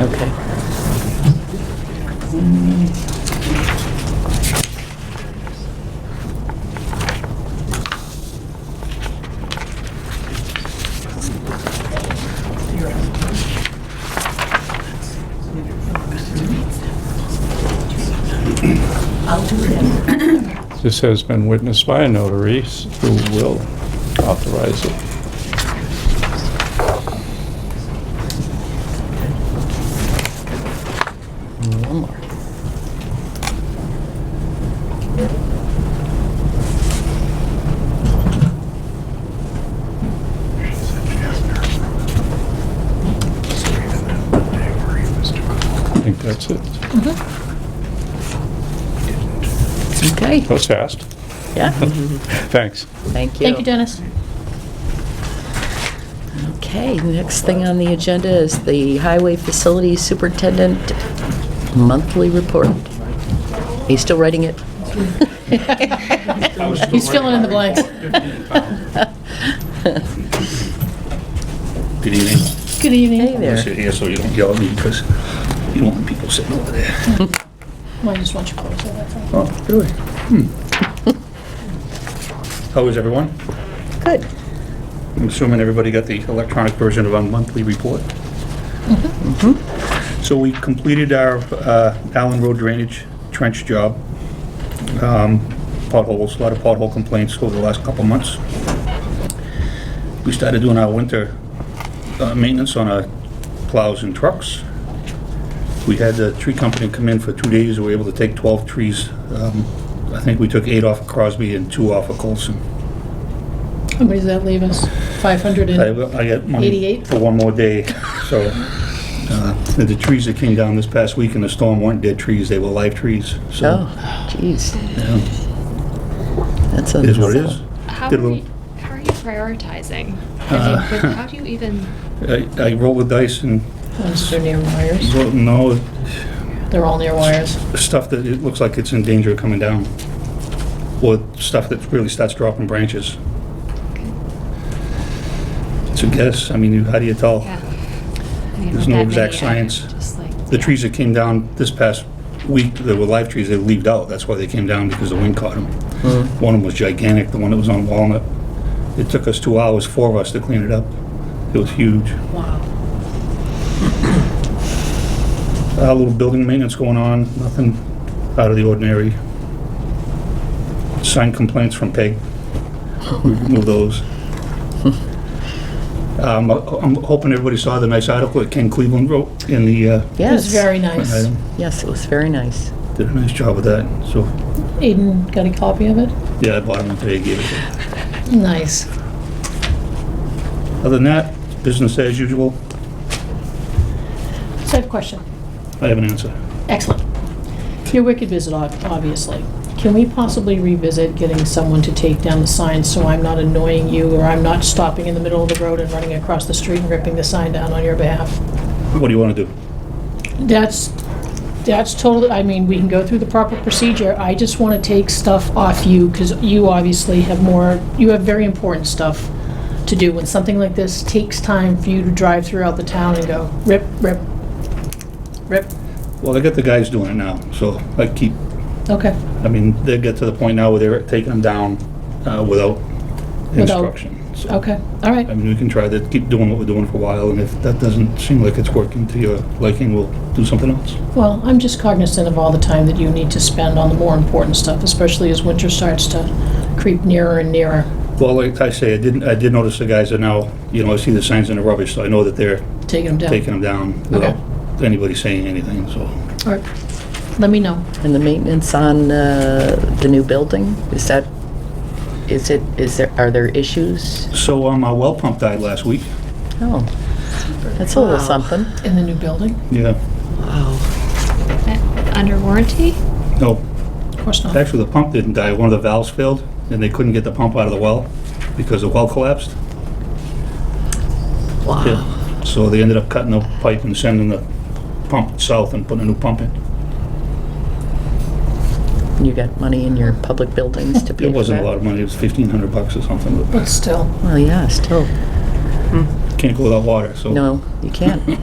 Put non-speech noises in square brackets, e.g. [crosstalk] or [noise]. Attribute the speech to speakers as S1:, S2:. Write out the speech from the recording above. S1: Okay.
S2: This has been witnessed by a notary who will authorize it.
S1: One more.
S2: I think that's it.
S1: Okay,
S2: That was fast.
S1: yeah,
S2: [laughs] Thanks.
S1: thank you.
S3: Thank you, Dennis.
S1: Okay, next thing on the agenda is the Highway Facility Superintendent Monthly Report. Are you still writing it?
S3: He's filling in the blanks.
S4: Good evening.
S3: Good
S1: Hey
S3: evening.
S4: I'll
S1: there.
S4: sit here so you don't yell at me because you don't want people sitting over there.
S3: Well, I just want you closer, that's all.
S4: Oh, really? Hmm. How is everyone?
S1: Good.
S4: I'm assuming everybody got the electronic version of our monthly report. So we completed our uh, Allen Road drainage trench job. Um, Potholes, a lot of pothole complaints over the last couple months. We started doing our winter uh, maintenance on our plows and trucks. We had the tree company come in for two days, we were able to take 12 trees. Um, I think we took eight off of Crosby and two off of Colson.
S3: How many does that leave us? 500
S4: I,
S3: and,
S4: I got money
S3: 88?
S4: for one more day, so, uh, the- the trees that came down this past week in the storm weren't dead trees, they were live trees, so.
S1: Oh, jeez.
S4: yeah,
S1: That's
S4: It is what it is.
S5: How
S4: Did
S5: are,
S4: we-
S5: you, how are you prioritizing?
S4: Uh,
S5: I
S4: [laughs]
S5: mean, how do you even?
S4: I, I rolled the dice and,
S3: those are near wires.
S4: wrote, no,
S3: They're all near wires.
S4: stuff that it looks like it's in danger of coming down, or stuff that really starts dropping branches. It's a guess, I mean, you- how do you tell?
S5: Yeah. I mean,
S4: There's
S5: with
S4: no
S5: that
S4: exact
S5: many, I
S4: science.
S5: Just like
S4: The trees that came down this past week, that were live trees, they leaved out. That's why they came down, because the wind caught them. One of them was gigantic, the one that was on Walnut. It took us two hours, four of us, to clean it up. It was huge.
S3: Wow.
S4: A little building maintenance going on, nothing out of the ordinary. Signed complaints from Peg. We removed those. Um, I'm hoping everybody saw the nice article that Ken Cleveland wrote in the... uh,
S3: It was
S1: Yes.
S3: very nice.
S4: item.
S1: Yes, it was very nice.
S4: Did a nice job with that, so
S3: Aiden got a copy of it?
S4: Yeah, I bought them today, gave it to them.
S3: Nice.
S4: Other than that, business as usual.
S3: So I have a question.
S4: I have an answer.
S3: Excellent. Your wicked visit, ob- obviously. Can we possibly revisit getting someone to take down the sign so I'm not annoying you or I'm not stopping in the middle of the road and running across the street and ripping the sign down on your behalf?
S4: What do you want to do?
S3: That's, that's totally, I mean, we can go through the proper procedure. I just want to take stuff off you because you obviously have more, you have very important stuff to do. When something like this takes time for you to drive throughout the town and go rip, rip, rip.
S4: Well, I got the guys doing it now, so I keep,
S3: Okay.
S4: I mean, they get to the point now where they're taking them down uh, without instruction. So,
S3: Okay, all right.
S4: I mean, we can try to keep doing what we're doing for a while, and if that doesn't seem like it's working to your liking, we'll do something else.
S3: Well, I'm just cognizant of all the time that you need to spend on the more important stuff, especially as winter starts to creep nearer and nearer.
S4: Well, like I say, I didn't, I did notice the guys are now, you know, I see the signs in the rubbish, so I know that they're
S3: Taking them down.
S4: taking them down without anybody saying anything, so.
S3: All right, let me know.
S1: And the maintenance on uh, the new building, is that, is it, is there, are there issues?
S4: So, um, our well pump died last week.
S1: Oh, that's a little
S6: Wow.
S1: something.
S3: In the new building?
S4: Yeah.
S5: uh, under warranty.
S4: No,
S3: Of course not.
S4: Actually, the pump didn't die, one of the valves failed, and they couldn't get the pump out of the well because the well collapsed.
S6: Wow.
S4: Yeah. So they ended up cutting the pipe and sending the pump south and putting a new pump in.
S1: You got money in your public buildings to pay for
S4: It wasn't a
S1: that?
S4: lot of money, it was fifteen hundred bucks or something, but
S3: But still,
S1: Well, yeah, still,
S4: can't go without water, so.
S1: no, you can't.